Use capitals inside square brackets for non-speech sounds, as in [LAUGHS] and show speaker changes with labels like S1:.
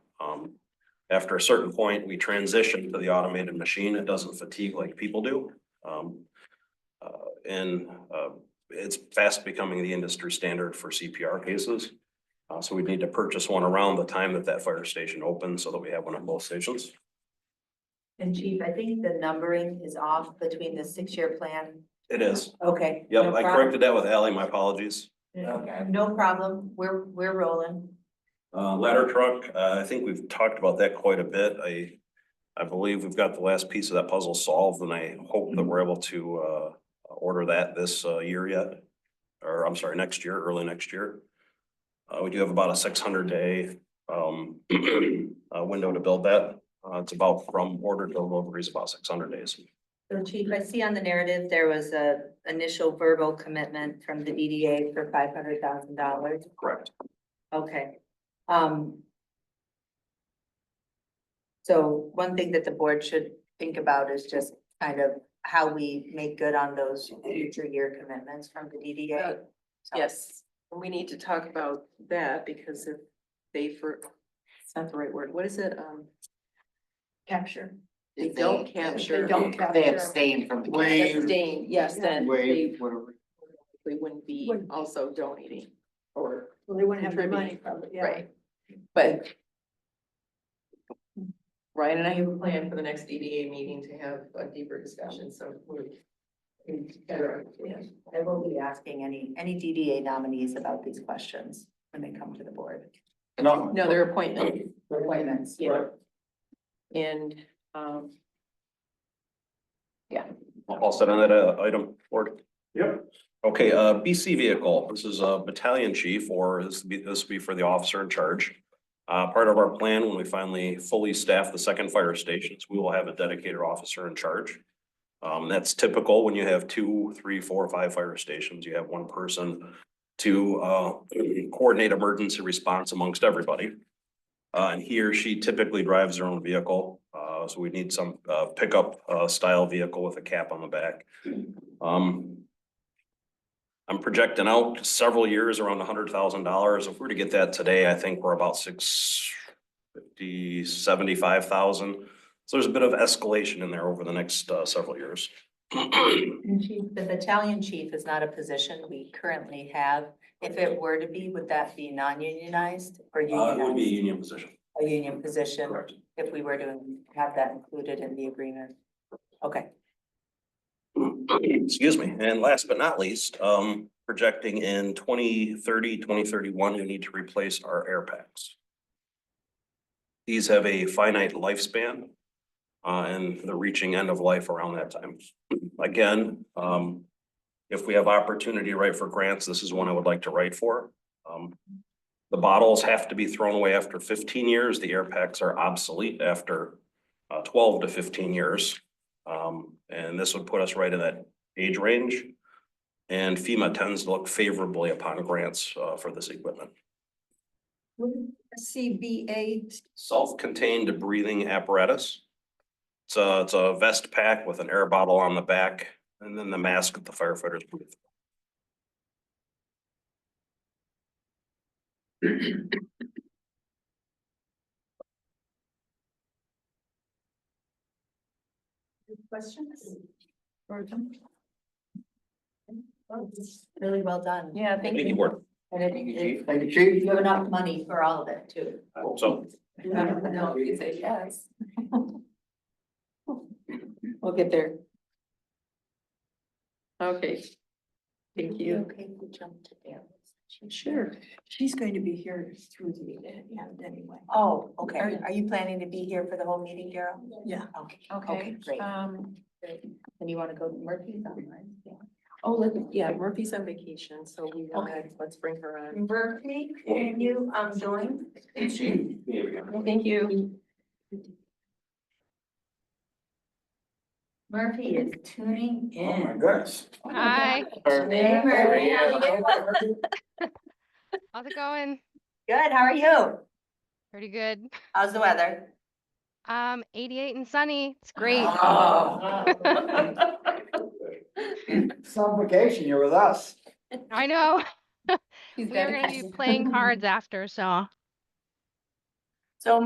S1: Um, After a certain point, we transition to the automated machine. It doesn't fatigue like people do. Um, uh, and, uh, it's fast becoming the industry standard for CPR cases. Uh, so we'd need to purchase one around the time that that fire station opens so that we have one at both stations.
S2: And chief, I think the numbering is off between the six-year plan.
S1: It is.
S2: Okay.
S1: Yep,
S2: no
S1: I
S2: prob-
S1: corrected that with Ally. My apologies.
S2: Okay, No problem. We're, we're rolling.
S1: Uh, ladder truck, uh, I think we've talked about that quite a bit. I, I believe we've got the last piece of that puzzle solved and I hope that we're able to, uh, order that this, uh, year yet. Or I'm sorry, next year, early next year. Uh, we do have about a six hundred day, um, [CLEARS THROAT] uh, window to build that. Uh, it's about from order to delivery is about six hundred days.
S2: So chief, I see on the narrative, there was a initial verbal commitment from the DDA for five hundred thousand dollars.
S1: Correct.
S2: Okay. Um. So one thing that the board should think about is just kind of how we make good on those future year commitments from the E DDA. So-
S3: Yes, and we need to talk about that because if they for, it's not the right word, what is it, um,
S2: Capture.
S3: they don't
S4: They-
S3: capture.
S2: They don't
S4: They
S2: capture.
S4: abstain from the.
S3: They
S4: cash.
S3: abstain, yes, then they
S4: Waive, whatever.
S3: they wouldn't be
S5: Wouldn't.
S3: also donating or,
S5: Well, they wouldn't have the money
S3: Contributing,
S5: probably, yeah.
S3: right, but. Ryan and I have a plan for the next DDA meeting to have a deeper discussion, so we're.
S2: I will be asking any, any DDA nominees about these questions when they come to the board.
S4: No.
S3: No, their appointment.
S2: Appointments.
S3: Yeah. And, um,
S1: All set on that uh, item, Lord?
S6: Yep.
S1: Okay, uh, BC vehicle, this is a battalion chief or this would be, this would be for the officer in charge. Uh, part of our plan, when we finally fully staff the second fire stations, we will have a dedicated officer in charge. Um, that's typical when you have two, three, four, five fire stations, you have one person to, uh, coordinate emergency response amongst everybody. Uh, and he or she typically drives their own vehicle, uh, so we need some, uh, pickup, uh, style vehicle with a cap on the back. Um. I'm projecting out several years around hundred thousand dollars. If we were to get that today, I think we're about six fifty, seventy-five thousand. So there's a bit of escalation in there over the next, uh, several years. [CLEARS THROAT] Uh,
S2: The battalion chief is not a position we currently have. If it were to be, would that be non-unionized or
S1: Uh, it would be a
S2: unionized?
S1: union position.
S2: A union position,
S1: Correct.
S2: if we were to have that included in the agreement. Okay,
S1: Excuse me. And last but not least, um, projecting in 2030, 2031, we need to replace our air packs. These have a finite lifespan, uh, and they're reaching end of life around that time. Again, um, if we have opportunity to write for grants, this is one I would like to write for. Um, the bottles have to be thrown away after fifteen years. The air packs are obsolete after uh, twelve to fifteen years. Um, and this would put us right in that age range. And FEMA tends to look favorably upon grants, uh, for this equipment.
S5: Wouldn't CBA,
S1: Self-contained breathing apparatus. It's a, it's a vest pack with an air bottle on the back and then the mask that the firefighters breathe.
S5: questions?
S2: really well done.
S3: yeah, thank
S1: Thank you, Ward.
S2: And
S4: Thank you,
S2: it-
S4: chief.
S2: it,
S4: Thank you, chief.
S2: you have enough money for all of it too.
S1: I hope So
S3: No, you say yes. We'll get there. Okay. Thank you.
S2: Okay, we jumped to Dan's.
S3: Sure.
S5: She's going to be here through the end anyway.
S2: Oh, okay. Are you planning to be here for the whole meeting, Daryl?
S5: Yeah.
S2: Okay. Okay, great.
S3: Um,
S2: And you want to go to Murphy's online?
S3: oh, look, yeah, Murphy's on vacation, so we, wanna- let's bring her on.
S2: Murphy, can you, um, join?
S3: Thank you.
S2: Murphy is tuning
S4: Oh,
S2: in.
S4: goodness.
S7: Hi,
S2: Hey, Murphy, how you doing?
S7: how's it going?
S2: Good, how are you?
S7: Pretty good.
S2: How's the weather?
S7: Um, 88 and sunny. It's great.
S4: Some vacation, you're with us.
S7: I know. [LAUGHS]
S3: He's
S7: We are
S3: got
S7: going to be playing cards after, so